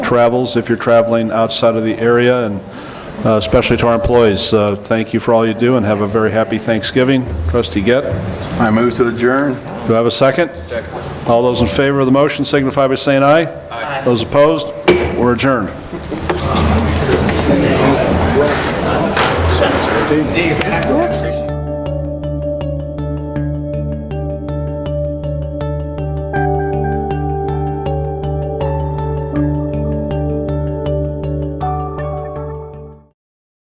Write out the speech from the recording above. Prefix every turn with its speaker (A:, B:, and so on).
A: travels if you're traveling outside of the area, and uh, especially to our employees. Uh, Thank you for all you do, and have a very happy Thanksgiving. Trustee Gett, do
B: I move to adjourn.
A: I have a second? Second. All those in favor of the motion signify by saying aye. Aye. Those opposed, we're adjourned.
C: Dave,